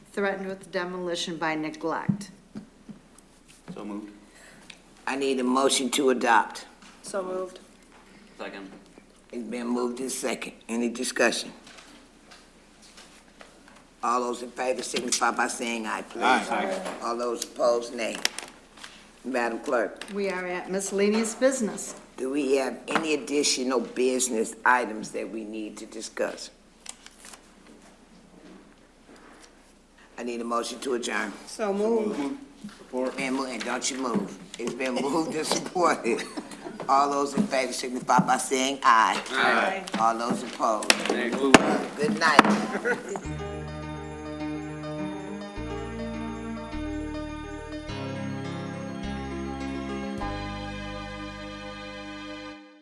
threatened with demolition by neglect. So moved. I need a motion to adopt. So moved. Second. It's been moved in second. Any discussion? All those in favor signify by saying aye, please. Aye. All those opposed, nay. Madam Clerk, We are at miscellaneous business. do we have any additional business items that we need to discuss? I need a motion to adjourn. So moved. Been moved, and don't you move. It's been moved and supported. All those in favor signify by saying aye. Aye. All those opposed. Good night.